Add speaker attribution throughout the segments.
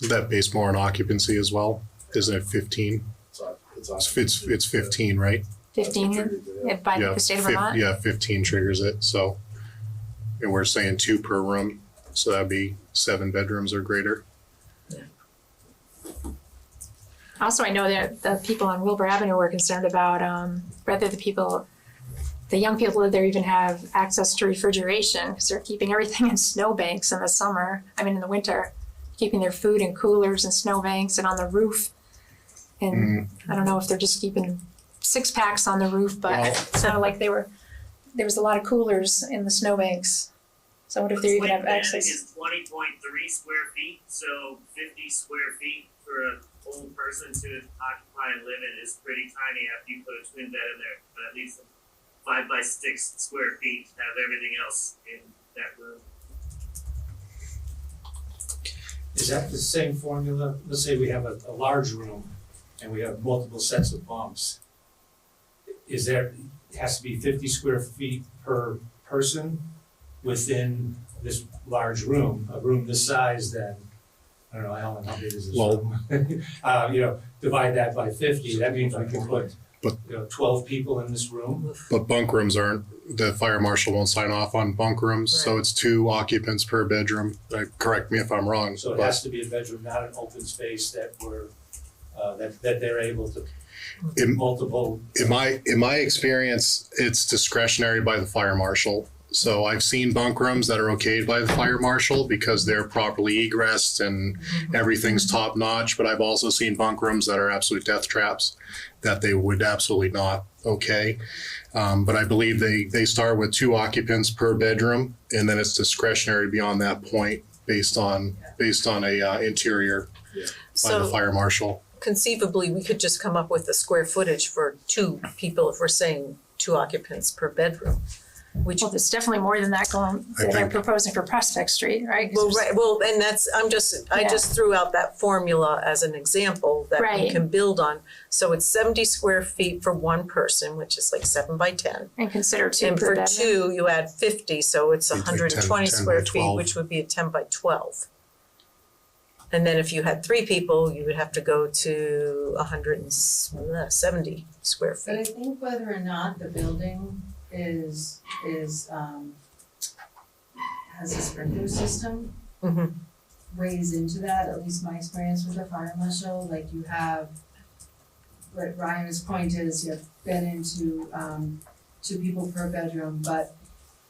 Speaker 1: Is that based more on occupancy as well? Isn't it fifteen?
Speaker 2: It's on- it's on-
Speaker 1: It's, it's, it's fifteen, right?
Speaker 2: That's
Speaker 3: Fifteen,
Speaker 2: contributed, yeah.
Speaker 3: if by
Speaker 1: Yeah,
Speaker 3: the state of
Speaker 1: fif-
Speaker 3: Vermont,
Speaker 1: Yeah, fifteen triggers it, so. And we're saying two per room, so that'd be seven bedrooms or greater.
Speaker 3: also I know that the people on Wilbur Avenue were concerned about, um, whether the people, the young people that there even have access to refrigeration, because they're keeping everything in snowbanks in the summer, I mean, in the winter, keeping their food in coolers and snowbanks and on the roof. And
Speaker 1: Mm,
Speaker 3: I don't know if they're just keeping six packs on the roof, but
Speaker 1: Well-
Speaker 3: it sounded like they were, there was a lot of coolers in the snowbanks. So I wonder if they even have
Speaker 4: Looks like
Speaker 3: access.
Speaker 4: that is twenty point three square feet, so fifty square feet for an old person to occupy and live in is pretty tiny after you put a twin bed in there, but at least five by six square feet to have everything else in that room.
Speaker 5: Is that the same formula? Let's say we have a, a large room and we have multiple sets of bumps. Is there, it has to be fifty square feet per person within this large room, a room this size then? I don't know, Alan, how big is this
Speaker 1: Well-
Speaker 5: room? Uh, you know, divide that by fifty, that means we can put,
Speaker 1: But-
Speaker 5: you know, twelve people in this room.
Speaker 1: But bunk rooms aren't, the fire marshal won't sign off on bunk rooms, so it's two occupants per bedroom. Uh, Correct me if I'm wrong,
Speaker 5: So it
Speaker 1: but
Speaker 5: has to be a bedroom, not an open space that we're, uh, that, that they're able to,
Speaker 1: Im-
Speaker 5: multiple
Speaker 1: in my in my experience, it's discretionary by the fire marshal. So I've seen bunk rooms that are okayed by the fire marshal because they're properly egressed and everything's top notch. But I've also seen bunk rooms that are absolute death traps that they would absolutely not okay. Um, but I believe they they start with two occupants per bedroom, and then it's discretionary beyond that point based on based on a uh, interior by the
Speaker 6: So
Speaker 1: fire marshal.
Speaker 6: conceivably, we could just come up with the square footage for two people if we're saying two occupants per bedroom. Which,
Speaker 3: Well, there's definitely more than that going,
Speaker 1: I
Speaker 3: that they're
Speaker 1: think-
Speaker 3: proposing for Prospect Street, right? 'Cause
Speaker 6: well,
Speaker 3: there's-
Speaker 6: right, well, and that's, I'm just, I
Speaker 3: Yeah.
Speaker 6: just threw out that formula as an example that we
Speaker 3: Right.
Speaker 6: can build on. So it's seventy square feet for one person, which is like seven by ten.
Speaker 3: And consider two
Speaker 6: And
Speaker 3: per
Speaker 6: for
Speaker 3: bedroom.
Speaker 6: two, you add fifty, so it's
Speaker 1: You'd think 10
Speaker 6: hundred and twenty
Speaker 1: 10 by
Speaker 6: square feet,
Speaker 1: 12.
Speaker 6: which would be a ten by twelve. And then if you had three people, you would have to go to hundred and uh, seventy square
Speaker 7: But I
Speaker 6: feet.
Speaker 7: think whether or not the building is, is, um, has a sprinkler system
Speaker 6: Mhm.
Speaker 7: weighs into that, at least my experience with the fire marshal, like you have, what Ryan's point is, you have been into, um, two people per bedroom, but,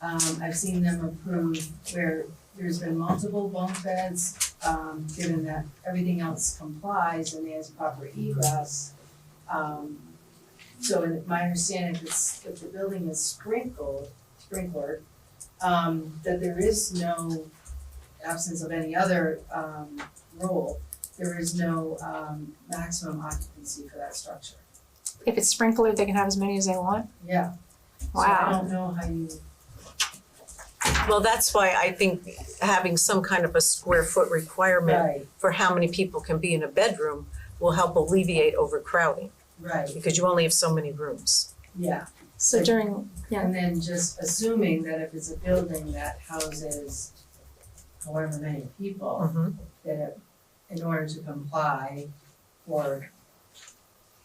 Speaker 7: um, I've seen them approve where there's been multiple bunk beds, um, given that everything else complies and there's proper egress. Um, so in my understanding, if it's, if the building is sprinkled, sprinklered, um, that there is no absence of any other um rule, there is no um maximum occupancy for that structure.
Speaker 3: If it's sprinkler, they can have as many as they want. um,
Speaker 7: Yeah. So I
Speaker 3: Wow.
Speaker 7: don't know how you,
Speaker 6: Well, that's why I think having some kind of a square foot requirement
Speaker 7: right,
Speaker 6: for how many people can be in a bedroom will help alleviate overcrowding,
Speaker 7: right,
Speaker 6: because you only have so many rooms.
Speaker 7: yeah.
Speaker 3: So during, yeah,
Speaker 7: And then just assuming that if it's a building that houses however many people,
Speaker 3: Mm-hmm.
Speaker 6: Mhm.
Speaker 7: that it- in order to comply for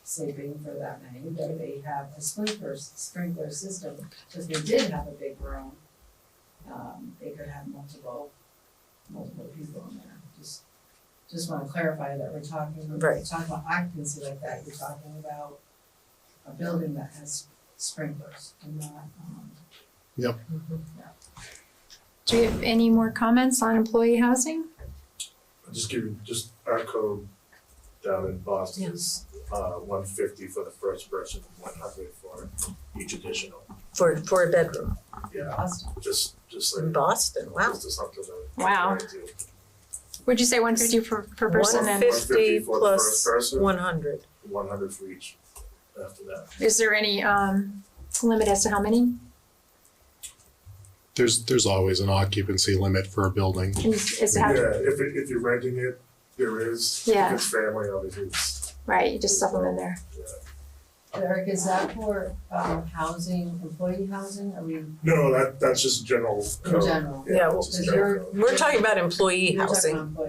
Speaker 7: sleeping for that many, that they have a sprinkler sprinkler system. So if they did have a big room, um, they could have multiple, multiple people in there. Just, just wanna clarify that we're talking, when we're
Speaker 6: Right.
Speaker 7: talking about occupancy like that, you're talking about a building that has sprinklers and not, um,
Speaker 6: Mm-hmm.
Speaker 3: do we have any more comments on employee housing?
Speaker 2: I'll Just give you, just our code down in Boston is uh one fifty for the first person, one hundred for each additional.
Speaker 6: For, for a bedroom.
Speaker 2: Yeah,
Speaker 7: cost.
Speaker 2: just just
Speaker 6: In
Speaker 2: like,
Speaker 6: Boston, wow.
Speaker 2: just something to.
Speaker 3: Wow. Would you say one fifty per per person and
Speaker 2: fif- 150
Speaker 6: 150
Speaker 2: for the first
Speaker 6: plus
Speaker 2: person.
Speaker 6: 100.
Speaker 2: One hundred for each after that.
Speaker 3: is there any um limit as to how many?
Speaker 1: There's there's always an occupancy limit for a building.
Speaker 3: Is is how,
Speaker 2: Yeah, if it, if you're renting it, there is, if
Speaker 3: Yeah.
Speaker 2: it's family, obviously it's,
Speaker 3: right, you just supplement there.
Speaker 2: yeah.
Speaker 7: Eric, is that for, um, housing, employee housing, I mean,
Speaker 2: No, that that's just general
Speaker 7: in
Speaker 2: code,
Speaker 7: general?
Speaker 2: yeah,
Speaker 6: Yeah,
Speaker 2: that's
Speaker 6: well,
Speaker 2: just
Speaker 7: Is
Speaker 2: general
Speaker 7: your-
Speaker 2: code.
Speaker 6: We're talking about employee
Speaker 7: You're talking
Speaker 6: housing.
Speaker 7: about employee